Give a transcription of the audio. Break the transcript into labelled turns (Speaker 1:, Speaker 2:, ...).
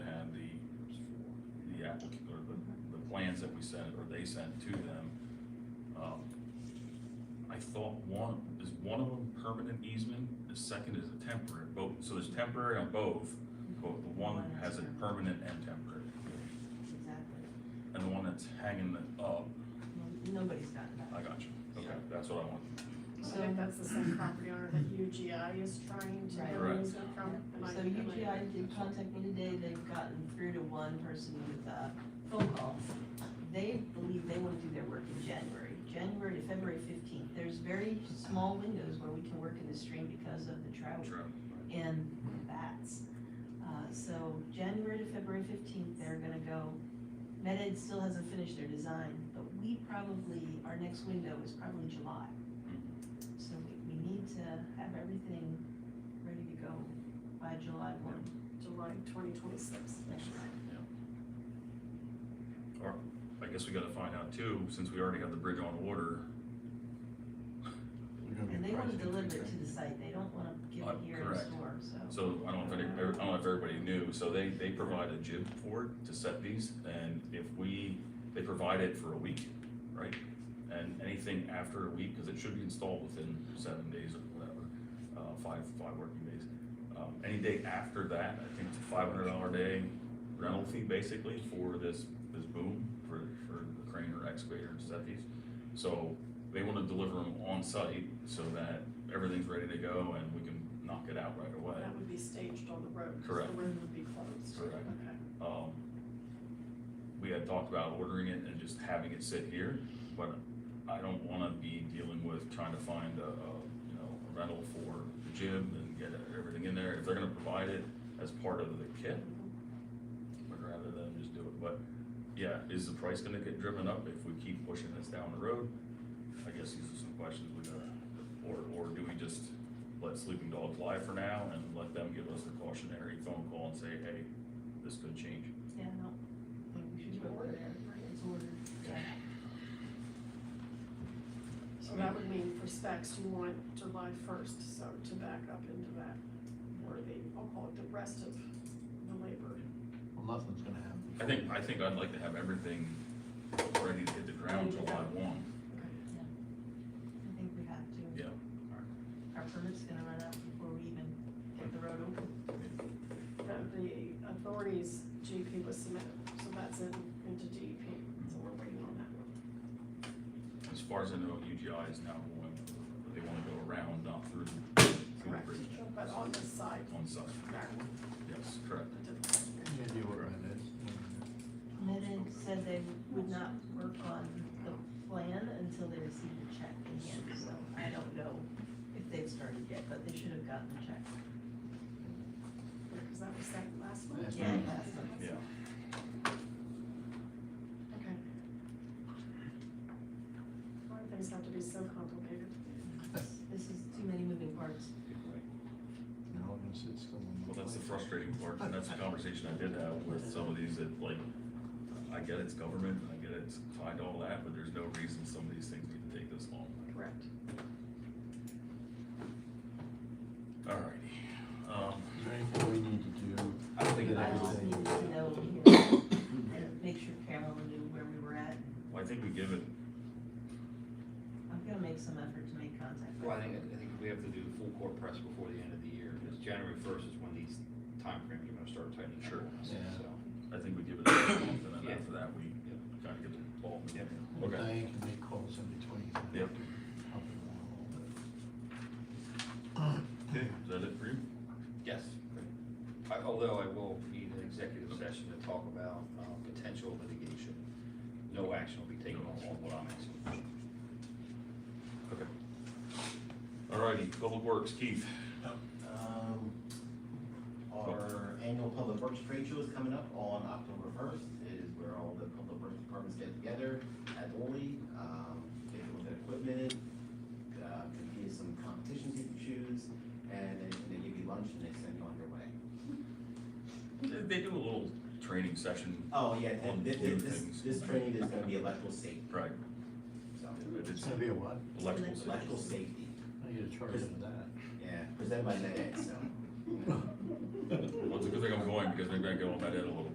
Speaker 1: applic, or the, the plans that we sent, or they sent to them, um, I thought one, is one of them permanent easement, the second is a temporary, both, so there's temporary on both, but the one has a permanent and temporary,
Speaker 2: Exactly.
Speaker 1: and the one that's hanging it up,
Speaker 2: Well, Nobody's gotten that.
Speaker 1: I got you, okay, that's what I want.
Speaker 3: I
Speaker 2: So,
Speaker 3: think that's the same property owner that UGI is trying to
Speaker 2: Right.
Speaker 3: get
Speaker 1: Correct.
Speaker 3: an easement from. Am I-
Speaker 2: so
Speaker 3: am I-
Speaker 2: UGI did contact me today, they've gotten through to one person with a phone call. They believe they wanna do their work in January, January to February fifteenth. There's very small windows where we can work in the stream because of the drought
Speaker 1: Sure.
Speaker 2: and bats. Uh, so January to February fifteenth, they're gonna go, Med Ed still hasn't finished their design, but we probably, our next window is probably July.
Speaker 1: Mm-hmm.
Speaker 2: So we, we need to have everything ready to go by July one.
Speaker 3: July twenty twenty-six.
Speaker 1: Or, I guess we gotta find out too, since we already have the bridge on order,
Speaker 2: And they wanna deliver it to the site, they don't wanna give
Speaker 1: Uh,
Speaker 2: it here in
Speaker 1: correct.
Speaker 2: store, so.
Speaker 1: So I don't know if any, I don't know if everybody knew, so they, they provide a jib for it to set these, and if we, they provide it for a week, right? And anything after a week, because it should be installed within seven days or whatever, uh, five, five working days. Um, any day after that, I think it's a five hundred dollar day rental fee basically for this, this boom, for, for the crane or excavator to set these. So they wanna deliver them on site so that everything's ready to go and we can knock it out right away.
Speaker 3: That would be staged on the road. 'cause
Speaker 1: Correct.
Speaker 3: The road would be closed.
Speaker 1: Correct.
Speaker 3: Okay.
Speaker 1: Um, we had talked about ordering it and just having it sit here, but I don't wanna be dealing with trying to find a, a, you know, a rental for the gym and get everything in there. If they're gonna provide it as part of the kit, would rather than just do it, but, yeah, is the price gonna get driven up if we keep pushing this down the road? I guess these are some questions we gotta, or, or do we just let sleeping dogs lie for now and let them give us a cautionary phone call and say, hey, this could change?
Speaker 2: Yeah, no, I think we should
Speaker 3: You
Speaker 2: go
Speaker 3: ordered it, right?
Speaker 2: It's ordered, yeah.
Speaker 3: So that would mean for specs, you want July first, so to back up into that, or the, I'll call it the rest of the labor.
Speaker 4: Well, nothing's gonna happen.
Speaker 1: I think, I think I'd like to have everything ready to hit the ground July one.
Speaker 2: I think we have to.
Speaker 1: Yeah.
Speaker 2: Our permit's gonna run out before we even get the road open.
Speaker 3: That the authorities GP was submitted, so that's in, into DEP, so we're waiting on that one.
Speaker 1: As far as I know, UGI is now going, they wanna go around, not through, through the
Speaker 3: Correct,
Speaker 1: bridge.
Speaker 3: but on this side,
Speaker 1: On site,
Speaker 3: that one,
Speaker 1: yes, correct.
Speaker 3: the different-
Speaker 4: Maybe what it is.
Speaker 2: Minid said they would not work on the plan until they received the check in hand, so I don't know if they've started yet, but they should have gotten the check.
Speaker 3: because that was that last one.
Speaker 4: Last
Speaker 2: Yeah, last one.
Speaker 1: Mm. Yeah.
Speaker 3: Okay. Why do things have to be so complicated?
Speaker 2: This is too many moving parts.
Speaker 4: Now I'm gonna sit still. and-
Speaker 1: Well, that's the frustrating part, and that's a conversation I did have with some of these that, like, I get it's government, I get it's tied to all that, but there's no reason some of these things need to take this long.
Speaker 3: Correct.
Speaker 1: Alrighty, um,
Speaker 4: Is there anything we need to do?
Speaker 1: I don't think
Speaker 4: Did
Speaker 2: I
Speaker 1: that is,
Speaker 2: just
Speaker 4: say-
Speaker 2: needed to know here and make sure Carolyn knew where we were at.
Speaker 1: well, I think we give it,
Speaker 2: I'm gonna make some effort to make contact. with
Speaker 5: Well, I
Speaker 2: her.
Speaker 5: think, I think we have to do full court press before the end of the year, because January first is when these timeframes are gonna start tightening up
Speaker 1: Sure.
Speaker 5: on us,
Speaker 4: Yeah.
Speaker 5: so.
Speaker 1: I think we give it a month, and then
Speaker 5: Yeah.
Speaker 1: after that, we kinda get the ball.
Speaker 5: Yep.
Speaker 1: Okay.
Speaker 4: Diane can make calls in between.
Speaker 1: Yep.
Speaker 4: Help her along a
Speaker 1: Okay,
Speaker 4: little bit.
Speaker 1: is that it for you?
Speaker 5: Yes. I- Although I will need an executive session to talk about, um, potential litigation. No action will be taken on what I'm asking.
Speaker 1: Okay. Alrighty, Public Works, Keith.
Speaker 6: Um, Our annual public works trade show is coming up on October first, It is where all the public works departments get together at Ole. Um, take a look at equipment, uh, could be some competitions you can choose, and then they give you lunch and they send you on your way.
Speaker 1: They they do a little training session,
Speaker 6: Oh, yeah, and thi- thi-
Speaker 1: New
Speaker 6: this,
Speaker 1: things.
Speaker 6: this training is gonna be electrical safety,
Speaker 1: right,
Speaker 6: so,
Speaker 1: if
Speaker 4: It's
Speaker 1: it's
Speaker 4: gonna be a what?
Speaker 1: electrical. safety.
Speaker 6: electrical safety,
Speaker 4: I need to charge them that.
Speaker 6: yeah, presented by NetEd, so.
Speaker 1: Well, it's a good thing I'm going, because maybe I can get on that in a little